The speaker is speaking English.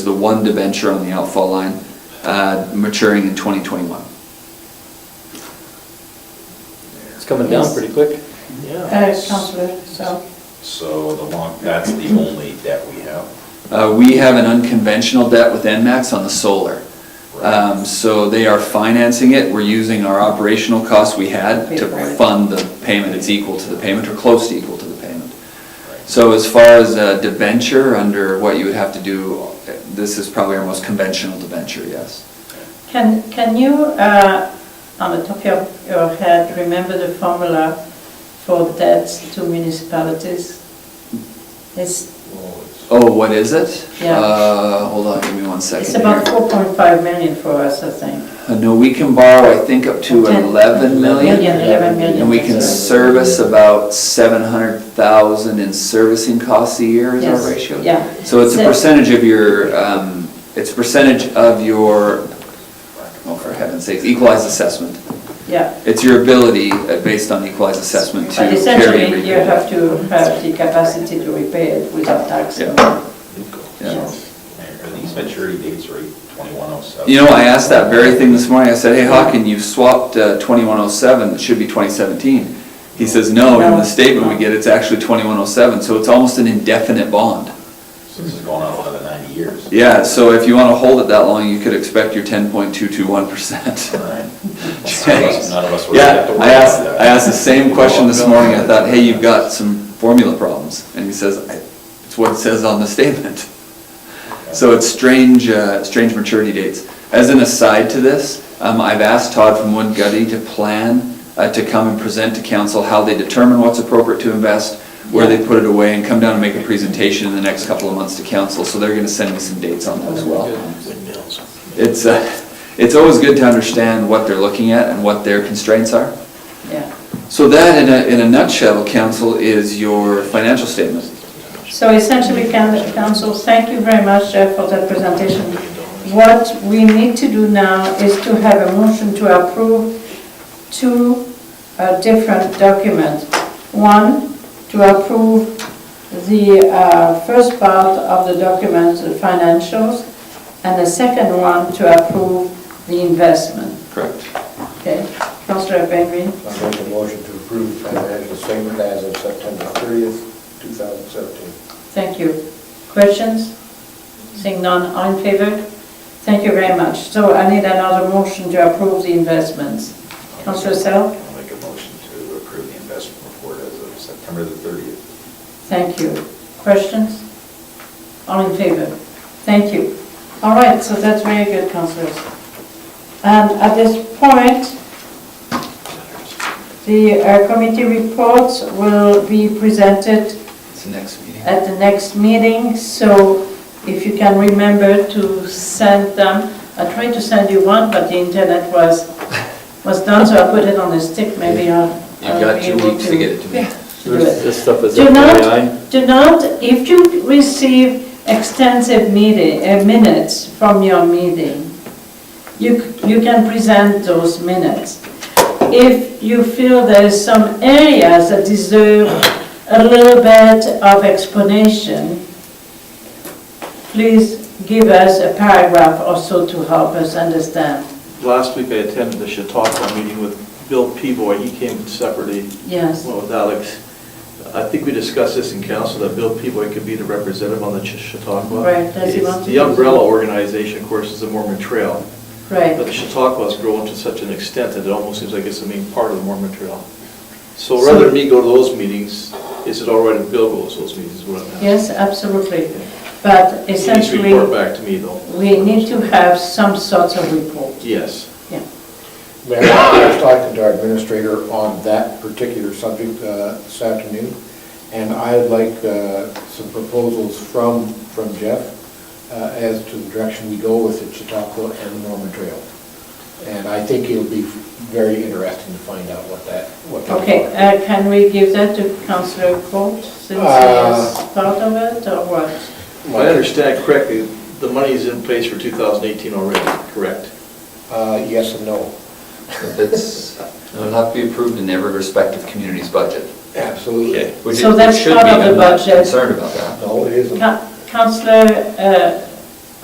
the one debenture on the outfall line uh, maturing in 2021. It's coming down pretty quick. Uh, Counselor, so, So the long, that's the only debt we have. Uh, We have an unconventional debt with NMAX on the solar. Um, So they are financing it, we're using our operational costs we had to Pay for it. fund the payment, it's equal to the payment, or close to equal to the payment. So as far as a debenture, under what you would have to do, this is probably our most conventional debenture, yes. can, can you, uh, on the top of your head, remember the formula for debts to municipalities? It's, Oh, what is it? Yeah. Uh, Hold on, give me one second it's about here. 4.5 million for us, I think. Uh, No, we can borrow, I think, up to Ten- 11 million. Million, 11 million. And we can service about seven hundred thousand in servicing costs a year is Yes, our ratio? yeah. So it's a So- percentage of your, um, it's a percentage of your, oh, for heaven's sakes, equalized assessment. Yeah, It's your ability, uh, based on equalized assessment, to but carry and essentially, you repay. have to have the capacity to repay it without tax. Yeah. Yeah. Are these maturity dates right, 2107? You know, I asked that very thing this morning, I said, hey, Hawken, you've swapped twenty-one oh seven, it should be twenty seventeen. He says, no, in No. the statement we get, it's actually twenty-one oh seven, so it's almost an indefinite bond. So This is going on another 90 years. Yeah, so if you want to hold it that long, you could expect your ten point two two one percent. All right. None of us- none of us would have to Yeah, worry I asked, about that. I asked the same question Oh, this morning, I thought, hey, you've got some formula problems, and he says, I- it's what it says on the statement. So it's strange, uh, strange maturity dates. As an aside to this, um, I've asked Todd from Wood Gutty to plan, uh, to come and present to council how they determine what's appropriate to invest, where they put it away, and come down and make a presentation in the next couple of months to council, so they're gonna send me some dates on that as well. It's, uh, it's always good to understand what they're looking at and what their constraints are. Yeah. So that, in a, in a nutshell, council, is your financial statement. So essentially, can- council, thank you very much, Jeff, for that presentation. What we need to do now is to have a motion to approve two uh, different documents. One, to approve the uh, first part of the document, the financials, and the second one to approve the investment. Correct. Okay, Councilor Pengreen? I make a motion to approve the financial statement as of September 30th, 2017. Thank you. Questions? Seeing none, all in favor? Thank you very much. So I need another motion to approve the investments. Councilor Sell? I'll make a motion to approve the investment report as of September the 30th. Thank you. Questions? All in favor? Thank you. All right, so that's very good, councilors. And at this point, the uh, committee reports will be presented It's the next meeting. at the next meeting, so if you can remember to send them, I tried to send you one, but the internet was, was done, so I put it on a stick, maybe I'll. I'll be able it to me. do it. This stuff is Do FYI. not, do not, if you receive extensive meeting, uh, minutes from your meeting, you, c- you can present those minutes. If you feel there is some areas that deserve a little bit of explanation, please give us a paragraph or so to help us understand. Last week I attended the Chautauqua meeting with Bill Peaboy. He came separately, Yes, well, with Alex. I think we discussed this in council, that Bill Peaboy could be the representative on the Ch- Chautauqua. Right, does he It's want to The do umbrella so? organization, of course, is the Mormon Trail. But the right. Chautauqua has grown to such an extent that it almost seems like it's the main part of the Mormon Trail. So So- rather than me go to those meetings, is it all right if Bill goes to those meetings, is what I'm asking? Yes, absolutely. But He needs to essentially. report back to me, though. We need to have some sort of report. Yes. Yeah, Mayor, I was talking to our administrator on that particular subject uh, this afternoon, and I'd like uh, some proposals from, from Jeff uh, as to the direction we go with the Chautauqua and the Norman Trail. And I think it'll be very interesting to find out what that, what those okay, are. uh, can we give that to Councillor Court since he is part of it or what? If I understand correctly, the money is in place for 2018 already, correct? Uh, Yes and no. It's, it'll have to be approved in every respective community's budget, Absolutely. which it So that's should be. part of the I'm not budget. Concerned about that. No, it isn't. Ca- Councillor uh,